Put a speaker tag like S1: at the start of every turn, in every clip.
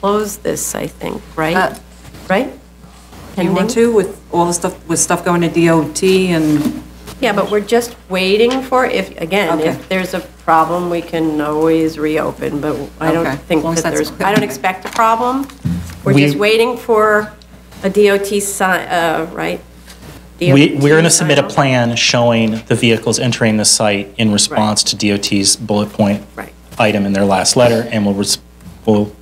S1: close this, I think,
S2: Uh,
S1: right? Right?
S2: You
S1: Pending?
S2: want to with all the stuff, with stuff going to DOT and,
S1: Yeah, but we're just waiting for, if, again,
S2: Okay.
S1: if there's a problem, we can always reopen, but I
S2: Okay,
S1: don't think
S2: as long as
S1: that
S2: that's
S1: there's,
S2: quick.
S1: I don't expect a problem. We're
S3: We-
S1: just waiting for a DOT sign, uh, right?
S3: We, we're going to
S1: DOT
S3: submit a
S1: sign-off?
S3: plan showing the vehicles entering the site in response to DOT's bullet point
S1: Right.
S3: item in their last letter, and we'll, res- we'll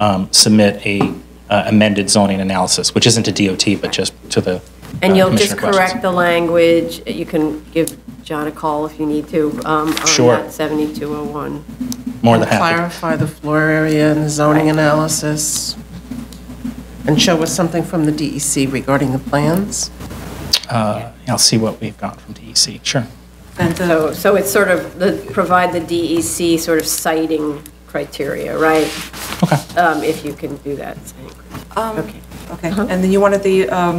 S3: um, submit a uh, amended zoning analysis, which isn't to DOT, but just to the. uh,
S1: And you'll just
S3: commissioner questions.
S1: correct the language, you can give John a call if you need to, um, on
S3: Sure.
S1: that 7201.
S3: More than happy.
S4: Clarify the floor area and the zoning analysis, and show us something from the DEC regarding the plans.
S3: Uh, I'll see what we've got from DEC, sure.
S2: and the,
S1: So, so it's sort of, the provide the DEC sort of citing criteria, right?
S3: Okay.
S1: Um, If you can do that. citing
S2: Um,
S1: criteria. Okay.
S2: okay. And then you wanted the, um,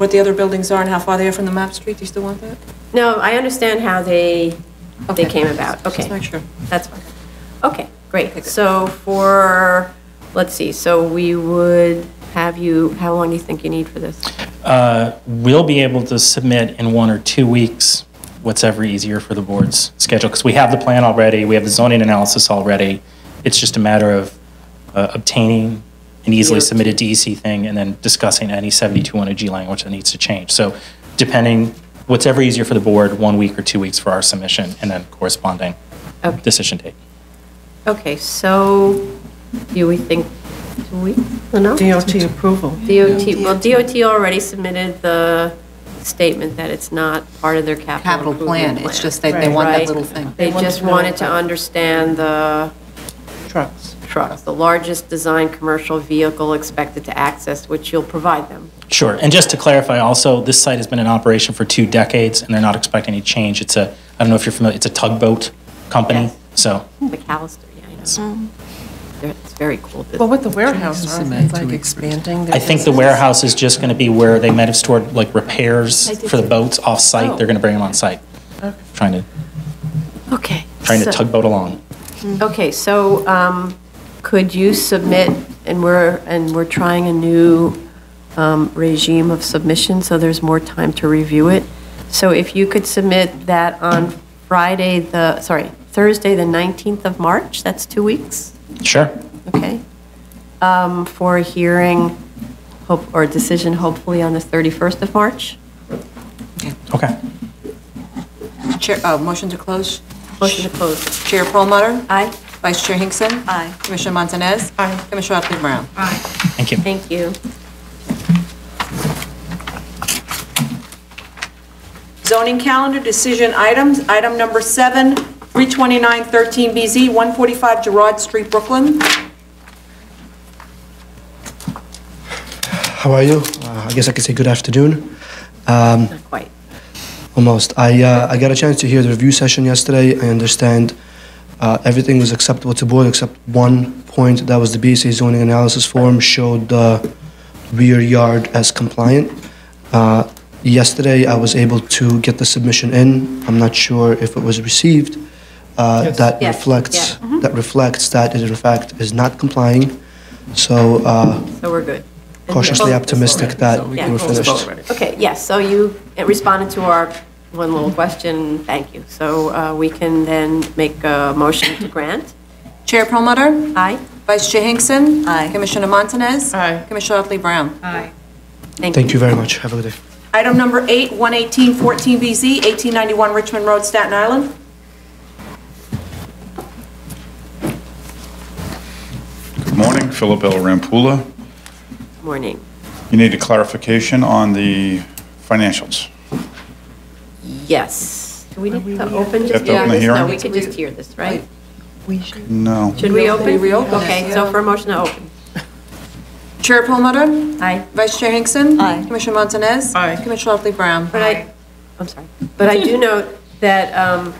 S2: what the other buildings are and how far they are from the map street? Do you still want that?
S1: No, I understand how they, they
S2: Okay.
S1: came about, okay.
S2: Just make sure.
S1: That's fine. Okay, great. So for, let's see, so we would have you, how long do you think you need for this?
S3: Uh, We'll be able to submit in one or two weeks, what's ever easier for the board's schedule, because we have the plan already, we have the zoning analysis already. It's just a matter of uh, obtaining an easily
S1: Yeah.
S3: submitted DEC thing and then discussing any 7201G language that needs to change. So depending, what's ever easier for the board, one week or two weeks for our submission, and then corresponding
S1: Okay.
S3: decision date.
S1: Okay, so do we think, do we, enough?
S4: DOT approval.
S1: DOT, well, DOT already submitted the statement that it's not part of their capital
S5: Capital plan,
S1: improvement plan.
S5: it's just they- they want that
S1: Right.
S5: little thing.
S1: They just wanted to understand the
S4: Trucks.
S1: trucks, the largest design commercial vehicle expected to access, which you'll provide them.
S3: Sure, and just to clarify also, this site has been in operation for two decades, and they're not expecting any change. It's a, I don't know if you're familiar, it's a tugboat company,
S1: Yes.
S3: so,
S1: McAllister, yeah, I know. They're- It's very cool.
S4: Well, with the warehouse, aren't they like expanding? their
S3: I think the
S4: business?
S3: warehouse is just going to be where they might have stored like repairs for the boats
S1: Oh.
S3: off-site, they're going to bring them on-site, trying to,
S1: Okay.
S3: trying to
S1: so-
S3: tugboat along.
S1: Okay, so um, could you submit, and we're, and we're trying a new um, regime of submission, so there's more time to review it. So if you could submit that on Friday, the, sorry, Thursday, the 19th of March, that's two weeks,
S3: Sure,
S1: okay? Um, For a hearing, hope, or decision hopefully on the 31st of March?
S3: okay.
S2: Chair, uh, motion to close?
S1: Motion to close.
S2: Chair Perlmutter?
S1: Aye?
S2: Vice Chair Hinkson?
S1: Aye.
S2: Commissioner Montanez? Aye. Commissioner Otley Brown?
S3: Thank you.
S1: Thank you.
S2: Zoning calendar decision items, item number seven, 32913BZ, 145 Gerard Street, Brooklyn.
S6: How are you? Uh, I guess I could say good afternoon. Um,
S1: Not quite.
S6: almost. I uh, I got a chance to hear the review session yesterday. I understand uh, everything was acceptable to board except one point. That was the BSA zoning analysis form showed the rear yard as compliant. Uh, yesterday, I was able to get the submission in. I'm not sure if it was received. Uh, That
S1: Yes,
S6: reflects
S1: yeah. Mm-hmm.
S6: that reflects that it in fact is not complying. So. Uh,
S1: So we're good.
S6: cautiously
S1: Yeah.
S6: optimistic that
S1: Yeah.
S6: we're finished.
S1: Okay, yes, so you responded to our one little question, thank you. So uh, we can then make a motion to grant.
S2: Chair Perlmutter?
S1: Aye?
S2: Vice Chair Hinkson?
S1: Aye.
S2: Commissioner Montanez?
S4: Aye.
S2: Commissioner Otley Brown?
S6: Thank you very much. Have a good day.
S2: Item number eight, 11814BZ, 1891 Richmond Road, Staten Island.
S7: Good morning, Philip L. Rampula.
S1: Morning.
S7: You need a clarification on the financials.
S1: Yes. Do we need to open
S7: Have
S1: just
S7: to
S1: hear
S7: open the
S1: this? No,
S7: hearing?
S1: we could just hear this, right?
S7: No.
S1: Should we open?
S2: Reopen.
S1: Okay, so for a motion to open.
S2: Chair Perlmutter?
S1: Aye.
S2: Vice Chair Hinkson? Aye. Commissioner Montanez? Aye. Commissioner Otley Brown?
S1: But I, I'm sorry, but I do note that um,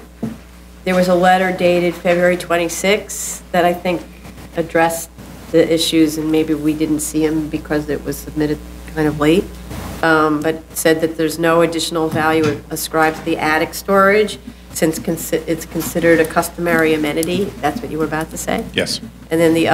S1: there was a letter dated February 26 that I think addressed the issues, and maybe we didn't see them because it was submitted kind of late, um, but said that there's no additional value ascribed to the attic storage since consi- it's considered a customary amenity. That's what you were about to say?
S7: Yes.
S1: And then the